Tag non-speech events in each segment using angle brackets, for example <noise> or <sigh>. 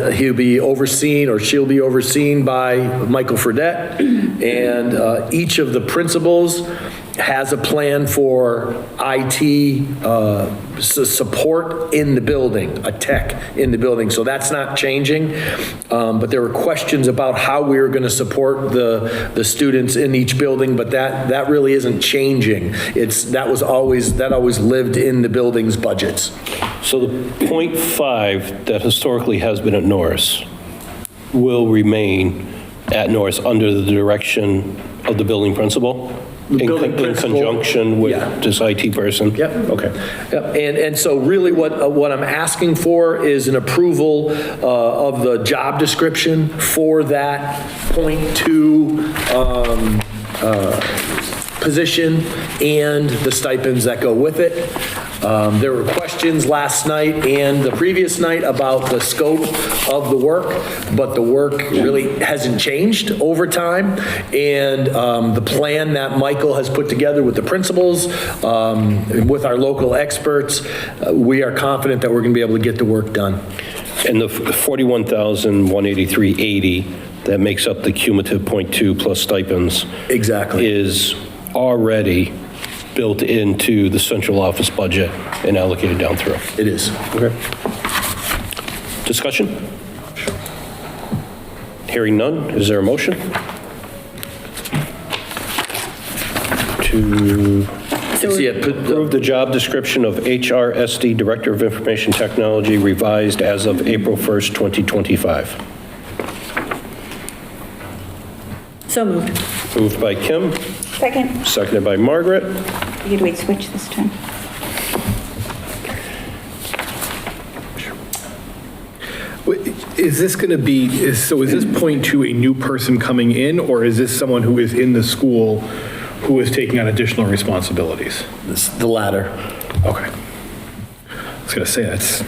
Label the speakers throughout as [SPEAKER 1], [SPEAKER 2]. [SPEAKER 1] Uh, He'll be overseen, or she'll be overseen by Michael Fredette, and uh, each of the principals has a plan for IT uh, su- support in the building, a tech in the building, so that's not changing. Um, But there were questions about how we were going to support the, the students in each building, but that, that really isn't changing. It's, that was always, that always lived in the building's budgets.
[SPEAKER 2] So the .5 that historically has been at Norris will remain at Norris under the direction of the building principal?
[SPEAKER 1] The
[SPEAKER 2] in con-
[SPEAKER 1] building principal.
[SPEAKER 2] In conjunction
[SPEAKER 1] Yeah.
[SPEAKER 2] with this IT person?
[SPEAKER 1] Yep, okay. Yep, and, and so really what, uh, what I'm asking for is an approval uh, of the job description for that point two um, uh, position and the stipends that go with it. Um, There were questions last night and the previous night about the scope of the work, but the work really hasn't changed over time. And um, the plan that Michael has put together with the principals, um, and with our local experts, uh, we are confident that we're going to be able to get the work done.
[SPEAKER 2] And the f- 41,183.80 that makes up the cumulative .2 plus stipends
[SPEAKER 1] Exactly.
[SPEAKER 2] is already built into the central office budget and allocated down through.
[SPEAKER 1] It is.
[SPEAKER 2] Okay. Discussion? Hearing none, is there a motion? To
[SPEAKER 1] So yeah, put-
[SPEAKER 2] approve the job description of HRSD Director of Information Technology revised as of April 1st, 2025.
[SPEAKER 3] So moved.
[SPEAKER 2] Moved by Kim,
[SPEAKER 4] Second,
[SPEAKER 2] seconded by Margaret.
[SPEAKER 4] you'd wait switch this time.
[SPEAKER 5] Wait, Is this going to be, is- so is this point to a new person coming in, or is this someone who is in the school who is taking on additional responsibilities?
[SPEAKER 1] It's the latter.
[SPEAKER 5] Okay. I was going to say, that's,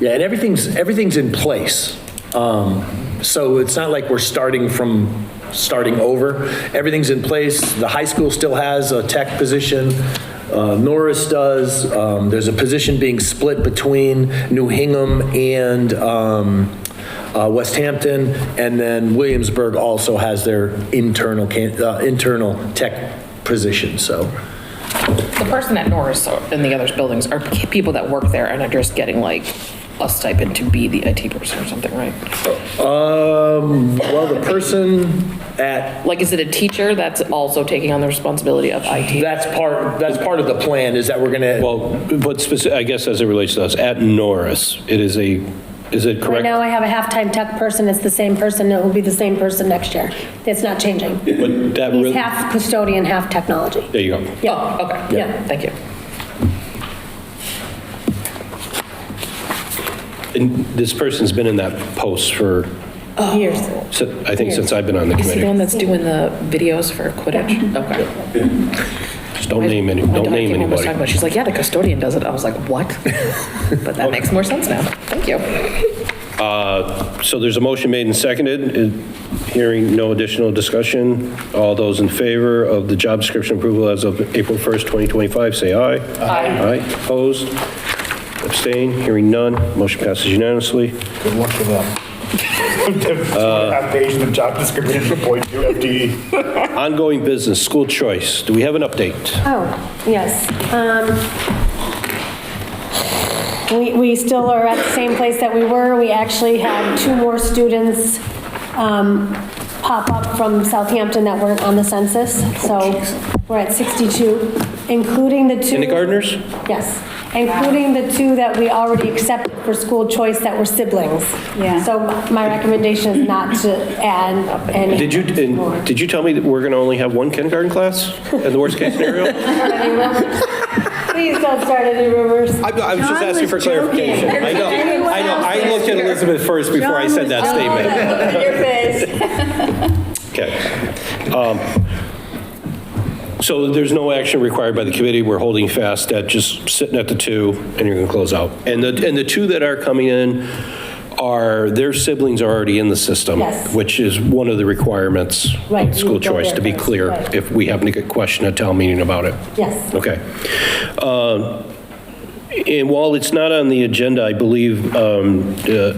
[SPEAKER 1] Yeah, and everything's, everything's in place. Um, So it's not like we're starting from, starting over. Everything's in place. The high school still has a tech position. Uh, Norris does. Um, There's a position being split between New Hingham and um, uh, West Hampton, and then Williamsburg also has their internal, can- uh, internal tech position, so.
[SPEAKER 6] The person at Norris and the others buildings are people that work there and are just getting like a stipend to be the IT person or something, right?
[SPEAKER 1] Um, Well, the person at
[SPEAKER 6] Like, is it a teacher that's also taking on the responsibility of IT?
[SPEAKER 1] That's part, that's part of the plan, is that we're gonna,
[SPEAKER 2] Well, but speci I guess as it relates to us, at Norris, it is a, is it
[SPEAKER 7] Right
[SPEAKER 2] correct?
[SPEAKER 7] now, I have a half-time tech person, it's the same person, it will be the same person next year. It's not changing.
[SPEAKER 2] But that
[SPEAKER 7] He's
[SPEAKER 2] really,
[SPEAKER 7] half custodian, half technology.
[SPEAKER 2] there you go.
[SPEAKER 7] Yeah.
[SPEAKER 6] Oh, okay,
[SPEAKER 7] Yeah.
[SPEAKER 6] yeah, thank you.
[SPEAKER 2] And this person's been in that post for,
[SPEAKER 7] Years.
[SPEAKER 2] si- I think since I've been on the
[SPEAKER 6] Is he the one
[SPEAKER 2] committee.
[SPEAKER 6] that's doing the videos for Quidditch? Okay.
[SPEAKER 2] Just don't name any,
[SPEAKER 6] My
[SPEAKER 2] don't
[SPEAKER 6] daughter
[SPEAKER 2] name
[SPEAKER 6] came home and was talking
[SPEAKER 2] anybody.
[SPEAKER 6] about it. She's like, yeah, the custodian does it. I was like,
[SPEAKER 2] <laughs>
[SPEAKER 6] what? But that makes more sense now. Thank you.
[SPEAKER 2] So there's a motion made and seconded. Is- Hearing no additional discussion. All those in favor of the job description approval as of April 1st, 2025, say aye. Aye. Aye, opposed, abstain, hearing none. Motion passes unanimously.
[SPEAKER 8] Good luck with <laughs> them.
[SPEAKER 5] Uh,
[SPEAKER 8] Half page of job description for point two E. FTE.
[SPEAKER 2] Ongoing business, school choice. Do we have an update?
[SPEAKER 7] Oh, yes. Um, We, we still are at the same place that we were. We actually had two more students um, pop up from Southampton that weren't on the census, so we're at 62, including the two.
[SPEAKER 2] Kindergartners?
[SPEAKER 7] Yes, including the two that we already accepted for school choice that were siblings.
[SPEAKER 4] Yeah.
[SPEAKER 7] So my recommendation is not to add any.
[SPEAKER 2] Did you,
[SPEAKER 7] more.
[SPEAKER 2] and did you tell me that we're going to only have one kindergarten class in the worst case scenario?
[SPEAKER 7] Please don't start any rumors.
[SPEAKER 9] I, I was just
[SPEAKER 4] John
[SPEAKER 9] asking for
[SPEAKER 4] was joking.
[SPEAKER 9] clarification. I know,
[SPEAKER 4] Everyone
[SPEAKER 9] I know.
[SPEAKER 4] else
[SPEAKER 9] I looked at Elizabeth first before I said that statement.
[SPEAKER 2] Okay. Um, So there's no action required by the committee. We're holding fast at just sitting at the two, and you're going to close out. And the, and the two that are coming in are, their siblings are already in the system.
[SPEAKER 7] Yes.
[SPEAKER 2] Which is one of the requirements
[SPEAKER 7] Right, you
[SPEAKER 2] of school
[SPEAKER 7] go
[SPEAKER 2] choice, to be
[SPEAKER 7] there first,
[SPEAKER 2] clear,
[SPEAKER 7] right.
[SPEAKER 2] if we happen to get questioned at town meeting about it.
[SPEAKER 7] Yes.
[SPEAKER 2] Okay. Um, And while it's not on the agenda, I believe um, uh,